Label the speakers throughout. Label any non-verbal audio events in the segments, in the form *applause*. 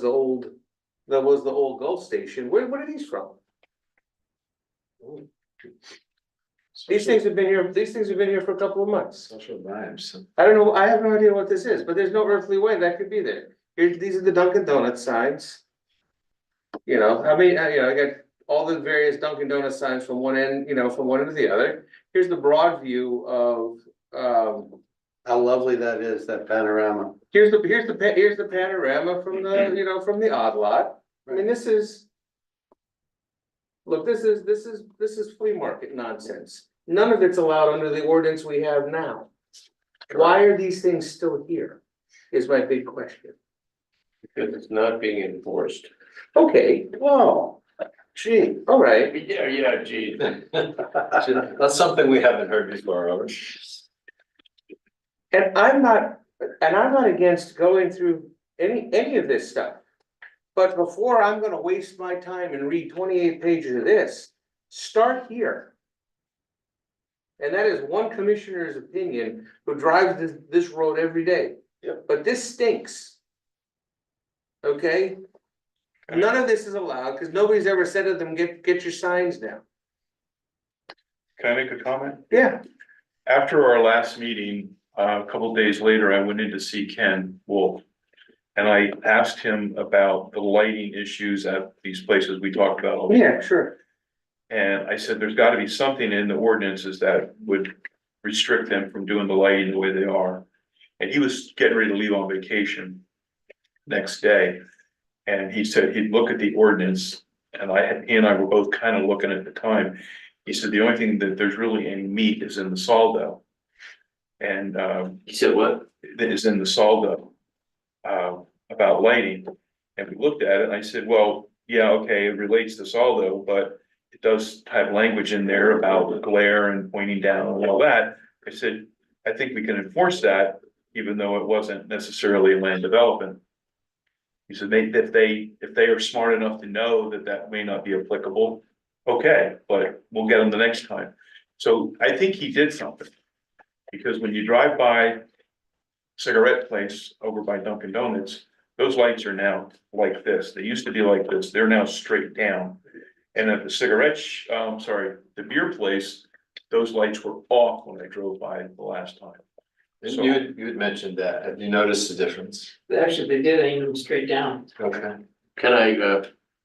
Speaker 1: the old, that was the old Gulf station, where, what are these from? These things have been here, these things have been here for a couple of months.
Speaker 2: Social vibes.
Speaker 1: I don't know, I have no idea what this is, but there's no earthly way that could be there. Here, these are the Dunkin' Donuts signs. You know, I mean, I, you know, I got all the various Dunkin' Donuts signs from one end, you know, from one end to the other. Here's the broad view of, um,
Speaker 2: How lovely that is, that panorama.
Speaker 1: here's the, here's the, pa- here's the panorama
Speaker 2: *clears throat*
Speaker 1: from the, you know, from the odd lot. I mean, this is. Look, this is, this is, this is flea market nonsense. None of it's allowed under the ordinance we have now. Why are these things still here? Is my big question.
Speaker 3: Because it's not being enforced.
Speaker 1: Okay,
Speaker 2: Whoa, gee.
Speaker 1: all right.
Speaker 3: *laughs* Yeah, yeah, gee.
Speaker 2: *laughs* That's something we haven't heard before, Robert.
Speaker 1: And I'm not, and I'm not against going through any, any of this stuff. But before I'm gonna waste my time and read twenty-eight pages of this, start here. And that is one commissioner's opinion who drives this, this road every day.
Speaker 2: Yep.
Speaker 1: But this stinks. Okay? None of this is allowed, cause nobody's ever said to them, get, get your signs down.
Speaker 4: Can I make a comment?
Speaker 1: Yeah.
Speaker 4: After our last meeting, uh, a couple days later, I went in to see Ken Wolf. And I asked him about the lighting issues at these places we talked about. all the time.
Speaker 1: oh, Yeah, sure.
Speaker 4: And I said, there's gotta be something in the ordinances that would restrict them from doing the lighting the way they are. And he was getting ready to leave on vacation next day. And he said he'd look at the ordinance, and I, had- he and I were both kind of looking at the time. He said the only thing that there's really any meat is in the saldo. And, um,
Speaker 3: He said what?
Speaker 4: that is in the Saldo. Uh, about lighting, and we looked at it, and I said, well, yeah, okay, it relates to Saldo, but. It does have language in there about glare and pointing down and all that, I said, I think we can enforce that, even though it wasn't necessarily land development. He said, they, if they, if they are smart enough to know that that may not be applicable, okay, but we'll get them the next time. So I think he did something. Because when you drive by cigarette place over by Dunkin' Donuts, those lights are now like this. They used to be like this. They're now straight down. And at the cigarette, sh- um, sorry, the beer place, those lights were off when I drove by the last time.
Speaker 2: You, had- you had mentioned that. Have you noticed the difference?
Speaker 5: Actually, they did aim them straight down.
Speaker 2: Okay.
Speaker 3: Can I uh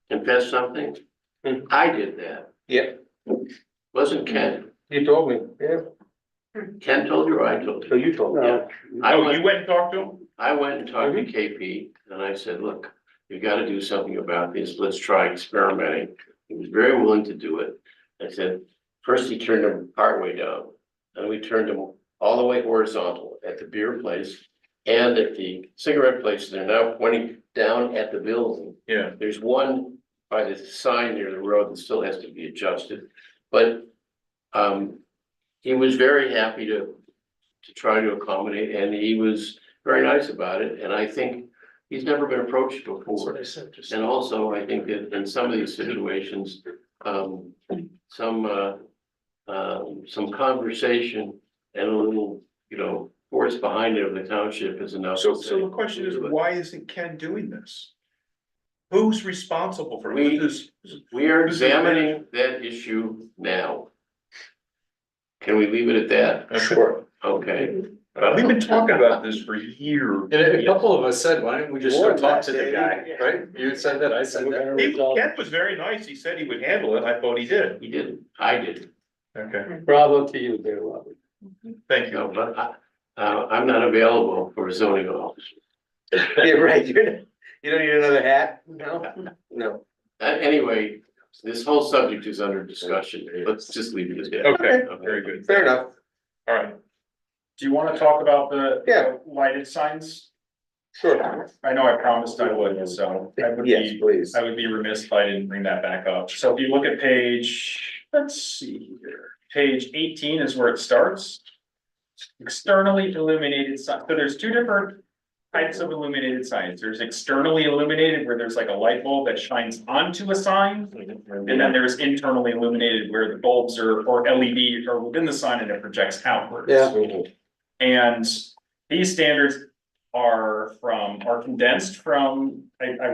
Speaker 3: confess something?
Speaker 1: Hmm.
Speaker 3: I did that.
Speaker 1: Yeah.
Speaker 3: Wasn't Ken?
Speaker 1: You told me, yeah.
Speaker 3: Ken told you or I told
Speaker 1: No,
Speaker 3: you?
Speaker 1: you told me.
Speaker 3: Yeah. I
Speaker 4: Oh, you
Speaker 3: went,
Speaker 4: went and talked to him?
Speaker 3: I went and talked
Speaker 1: Mm-hmm.
Speaker 3: to KP and I said, look, you gotta do something about this. Let's try experimenting. He was very willing to do it. I said, first he turned them partway down. Then we turned them all the way horizontal at the beer place and at the cigarette place. They're now pointing down at the building.
Speaker 4: Yeah.
Speaker 3: There's one by the sign near the road that still has to be adjusted, but um, he was very happy to to try to accommodate, and he was very nice about it, and I think he's never been approached before. And also, I think that in some of these situations, um, some uh, um, some conversation and a little, you know, force behind it of the township is enough.
Speaker 4: So,
Speaker 3: to
Speaker 4: so the
Speaker 3: say,
Speaker 4: question is,
Speaker 3: "We'll do it."
Speaker 4: why isn't Ken doing this? Who's responsible for it?
Speaker 3: We-
Speaker 4: Who's-
Speaker 3: We are
Speaker 4: This is the manager.
Speaker 3: examining that issue now. Can we leave it at that?
Speaker 2: Sure.
Speaker 3: Okay.
Speaker 4: We've been talking about this for years.
Speaker 2: And a couple of us said, why don't we just
Speaker 5: More
Speaker 2: go
Speaker 5: than
Speaker 2: talk
Speaker 5: that,
Speaker 2: to the
Speaker 5: Dave.
Speaker 2: guy, right? You said that, I said that.
Speaker 4: He- Ken was very nice. He said he would handle it. I thought he did.
Speaker 3: He didn't, I didn't,
Speaker 4: Okay,
Speaker 5: Bravo to you there, Robert.
Speaker 4: thank
Speaker 3: no,
Speaker 4: you.
Speaker 3: but I, uh, I'm not available for zoning office.
Speaker 1: *laughs* Yeah, right, you're, not- you don't need another hat? No. No.
Speaker 3: Uh, anyway, this whole subject is under discussion, let's just leave it as that.
Speaker 4: Okay, very good.
Speaker 1: Fair enough.
Speaker 4: All right.
Speaker 6: Do you wanna talk about the?
Speaker 1: Yeah.
Speaker 6: Lighted signs?
Speaker 1: Sure.
Speaker 6: I know I promised I would, so I would
Speaker 1: Yes,
Speaker 6: be,
Speaker 1: please.
Speaker 6: I would be remiss if I didn't bring that back up. So if you look at page, let's see here, page eighteen is where it starts. Externally illuminated sign, so there's two different types of illuminated signs. There's externally illuminated where there's like a light bulb that shines onto a sign. And then there's internally illuminated where the bulbs are, or LED are within the sign and it projects outwards.
Speaker 1: Yeah.
Speaker 6: And these standards are from, are condensed from, I, I